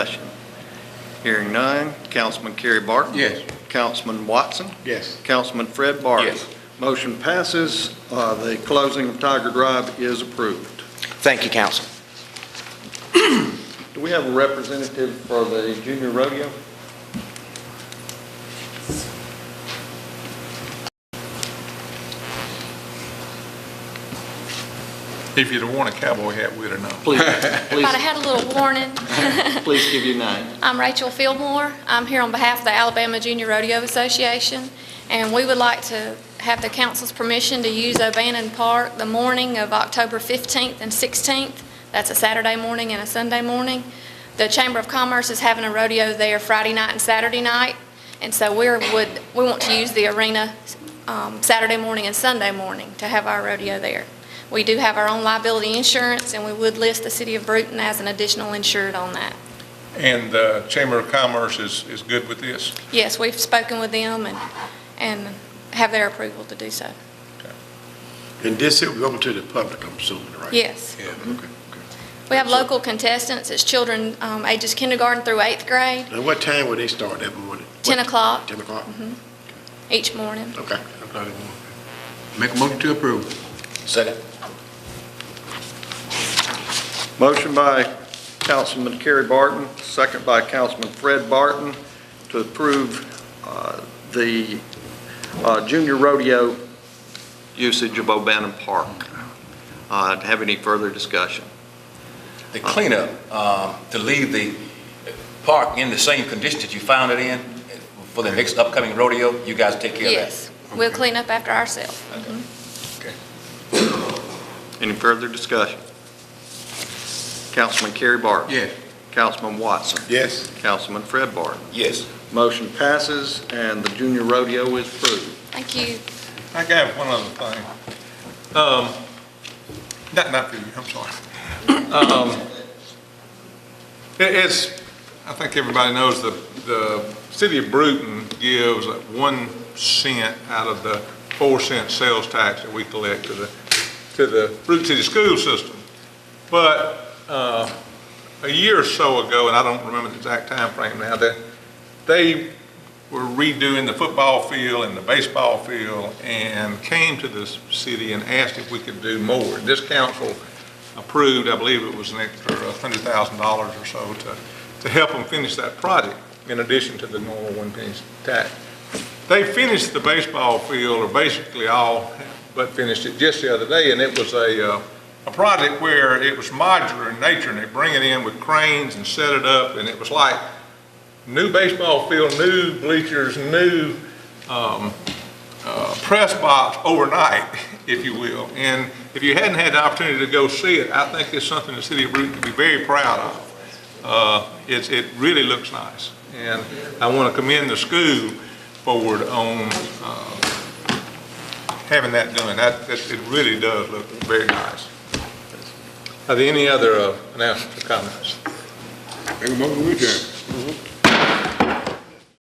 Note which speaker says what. Speaker 1: Hearing none. Councilman Kerry Barton.
Speaker 2: Yes.
Speaker 1: Councilman Watson.
Speaker 2: Yes.
Speaker 1: Councilman Fred Barton.
Speaker 2: Yes.
Speaker 1: Motion passes. Uh, The closing of Tiger Drive is approved.
Speaker 3: Thank you, council.
Speaker 1: Do we have a representative for the junior rodeo?
Speaker 2: If you'd have worn a cowboy hat, we'd have known.
Speaker 1: Please,
Speaker 4: But I had a little warning.
Speaker 1: please give your name.
Speaker 4: I'm Rachel Fillmore. I'm here on behalf of the Alabama Junior Rodeo Association, and we would like to have the council's permission to use Obannon Park the morning of October 15th and 16th. That's a Saturday morning and a Sunday morning. The Chamber of Commerce is having a rodeo there Friday night and Saturday night, and so we would, we want to use the arena um, Saturday morning and Sunday morning to have our rodeo there. We do have our own liability insurance, and we would list the city of Bruton as an additional insured on that.
Speaker 2: And the Chamber of Commerce is, is good with this?
Speaker 4: Yes, we've spoken with them and, and have their approval to do so.
Speaker 5: And this, it will go to the public, I'm assuming, right?
Speaker 4: Yes.
Speaker 5: Yeah, okay.
Speaker 4: We have local contestants, it's children um, ages kindergarten through eighth grade,
Speaker 5: And what time will they start that morning?
Speaker 4: 10 o'clock Mm-hmm.
Speaker 5: 10 o'clock?
Speaker 4: each morning.
Speaker 5: Okay.
Speaker 6: Make a motion to approve.
Speaker 5: Second.
Speaker 1: Motion by Councilman Kerry Barton, second by Councilman Fred Barton to approve uh, the uh, junior rodeo usage of Obannon Park. Uh, Have any further discussion?
Speaker 7: the cleanup, um, to leave the park in the same condition that you found it in for the next upcoming rodeo, you guys take care of that?
Speaker 4: Yes, we'll clean up after ourselves. Mm-hmm.
Speaker 1: Any further discussion? Councilman Kerry Barton.
Speaker 6: Yes.
Speaker 1: Councilman Watson.
Speaker 5: Yes.
Speaker 1: Councilman Fred Barton.
Speaker 7: Yes.
Speaker 1: Motion passes, and the junior rodeo is approved.
Speaker 4: Thank you.
Speaker 2: I got one other thing. Um, Not, not for you, I'm sorry. Um, it- It's, I think everybody knows that the city of Bruton gives one cent out of the four cent sales tax that we collect to the, to the Bruton City School System. But uh, a year or so ago, and I don't remember the exact time frame now, that they were redoing the football field and the baseball field and came to the city and asked if we could do more. This council approved, I believe it was an extra hundred thousand dollars or so to, to help them finish that project in addition to the normal one penny tax. They finished the baseball field or basically all, but finished it just the other day and it was a, uh, a project where it was modular in nature and they bring it in with cranes and set it up and it was like new baseball field, new bleachers, new um, uh, press box overnight, if you will. And if you hadn't had the opportunity to go see it, I think it's something the city of Bruton could be very proud of. Uh, It's, it really looks nice. And I want to commend the school forward on uh, having that done. That, that- it really does look very nice. Are there any other uh, announcements or comments?
Speaker 6: Make a motion to adjourn.